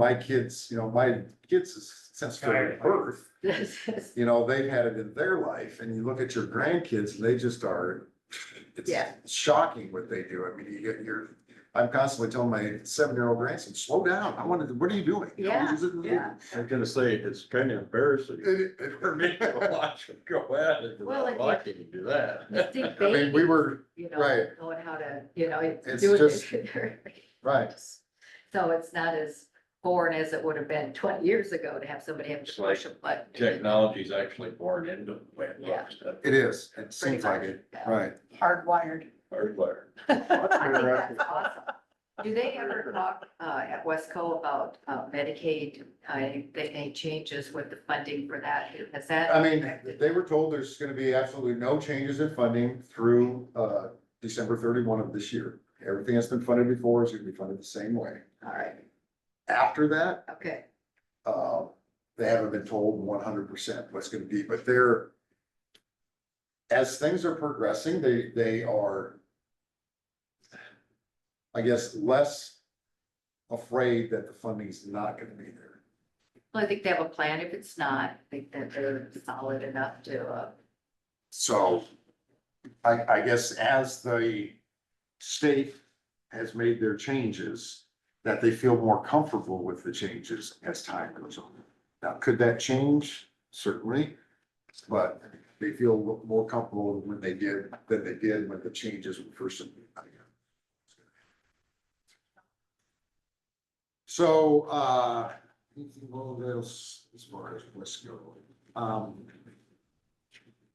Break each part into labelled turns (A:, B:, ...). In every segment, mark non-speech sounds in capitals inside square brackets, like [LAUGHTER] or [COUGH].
A: my kids, you know, my kids since their birth, you know, they've had it in their life, and you look at your grandkids, and they just are. It's
B: Yeah.
A: shocking what they do, I mean, you get, you're, I'm constantly telling my seven-year-old grandson, slow down, I wanted, to- what are you doing? You know,
B: Yeah,
A: is it-
B: yeah.
C: I'm gonna say, it's kind of embarrassing
A: It- it-
C: for me [LAUGHS] to watch them go at it,
B: Well, I
C: because I can't do
B: [LAUGHS]
C: that.
A: [LAUGHS] [LAUGHS]
B: Think
A: I mean, we
B: babies,
A: were,
B: you know,
A: right.
B: knowing how to, you know,
A: It's
B: it's doing
A: just-
B: it. [LAUGHS]
A: right,
B: So it's not as foreign as it would have been twenty years ago to have somebody have to
C: It's like
B: push a button.
C: Technology's actually born into the way it
B: Yeah.
C: looks, that
A: it is, it
B: Pretty
A: seems like
B: much,
A: it,
B: yeah. [LAUGHS]
A: right.
D: hardwired.
C: hardware.
B: I think that's awesome. Do they ever talk, uh, at Wesco about uh, Medicaid, uh, any changes with the funding for that? Has that?
A: I mean, they were told there's gonna be absolutely no changes in funding through, uh, December thirty-one of this year. Everything that's been funded before is gonna be funded the same way.
B: All right,
A: After that,
B: okay,
A: uh, they haven't been told one hundred percent what's gonna be, but they're as things are progressing, they, they are I guess less afraid that the funding's not gonna be there.
B: well, I think they have a plan. If it's not, I think that they're solid enough to, uh,
A: So I, I guess as the state has made their changes, that they feel more comfortable with the changes as time goes on. Now, could that change? Certainly, but they feel more comfortable when they did, than they did when the changes were first. implemented. So, uh, anything else as far as let's go. Um,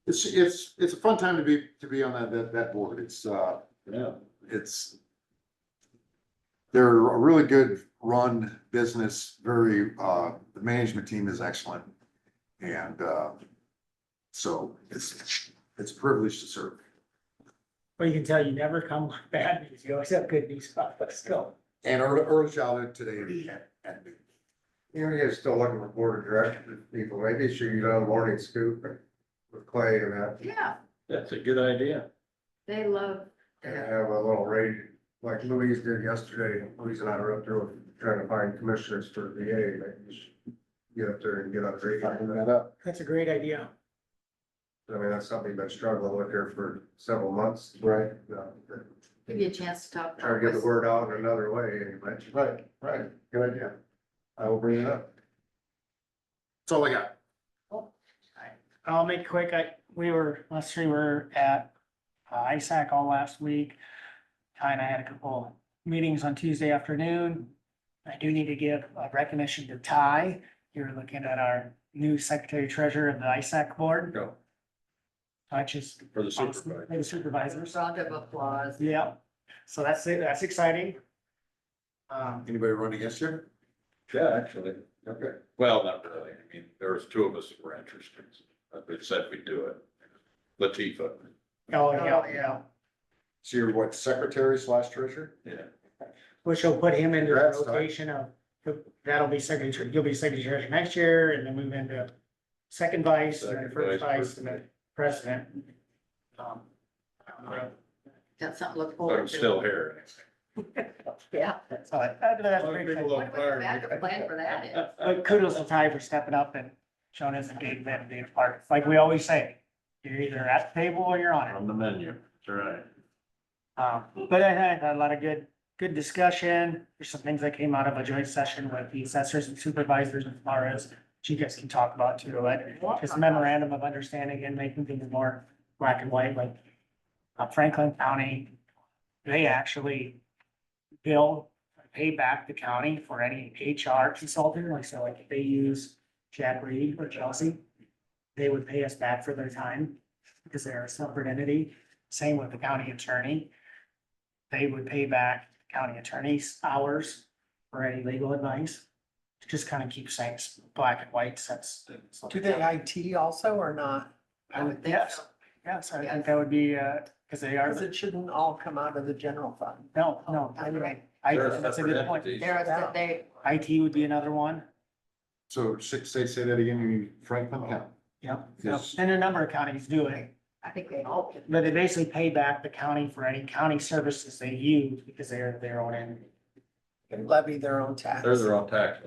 A: it's, it's, it's a fun time to be, to be on that, that, that board. It's, uh,
C: Yeah,
A: it's. They're a really good run business, very, uh, the management team is excellent. And, uh, so it's, it's a privilege to serve.
E: Well, you can tell you never come [LAUGHS] with bad news, you always have good news about us, go.
A: And early, early childhood today at, at noon.
F: You know, you're still looking for board of director people, maybe you should get on the morning scoop with Clay and that,
B: yeah,
C: that's a good idea.
B: they love.
F: and
B: their-
F: have a little raid, like Louise did yesterday, Louise and I were up there trying to find commissioners for VA, maybe you should get up there and get on raid.
A: Button that up.
E: That's a great idea.
F: I mean, that's something you've been struggling with here for several months,
A: Right.
F: you know,
B: Give you a chance to talk.
F: trying to get the word out in another way anyway.
A: Right, right. Good idea. I will bring it up. That's all I got.
E: I'll make quick, I, we were, let's see, we were at uh, ISAC all last week. Ty and I had a couple meetings on Tuesday afternoon. I do need to give a recognition to Ty. You're looking at our new secretary treasurer of the ISAC board,
C: Go
E: which is
C: for the
E: awesome,
C: supervisor.
E: and supervisors.
B: Round of applause.
E: Yeah, so that's, that's exciting. Um,
A: Anybody run against you?
C: Yeah, actually.
A: Okay.
C: Well, not really. I mean, there was two of us that were interested. They said we'd do it. Latifa,
E: oh, yeah, yeah.
A: So you're what, secretary slash treasurer?
C: yeah.
E: Which will put him into the
A: Congrats, Ty.
E: rotation of, that'll be secretary, you'll be secretary next year and then move into second vice and then
C: Second
E: first
C: vice,
E: vice and then president. Um, I don't know.
B: That's something to look
C: But I'm
B: forward to.
C: still here.
B: Yeah.
E: That's all I- uh,
C: A
E: that's
C: lot of
E: pretty
C: people
E: cool.
C: don't
B: What a
C: fire
B: backup
C: me.
B: plan for that is.
E: But kudos to Ty for stepping up and showing us engagement and being a part. It's Like we always say, you're either at the table or you're on it.
C: On the menu, that's right.
E: Um, but I had a lot of good, good discussion. There's some things that came out of a joint session with the assessors and supervisors and as Which you guys can talk about too, like just memorandum of understanding and making things more black and white, like uh, Franklin County, they actually bill, pay back the county for any HR consulting, like so like if they use Jack Reed or Chelsea, they would pay us back for their time because they're a separate entity. Same with the county attorney. They would pay back county attorney's hours for any legal advice. Just kind of keep things black and white since.
D: Do they IT also or not?
B: I would think
E: Yes.
B: so.
E: Yes, I think that would be, uh, because they are,
D: Because it Oh, shouldn't all come out of the general fund.
E: no, no. I
B: That's right.
E: think that's a good point.
B: There is that they,
E: IT would be another one.
A: So say, say say that again, you Franklin County.
E: Yep.
A: Yes.
E: And a number of counties do it,
B: I think they all can.
E: but they basically pay back the county for any county services they use because they're their own entity.
D: They Levy their own tax.
C: There's their own tax.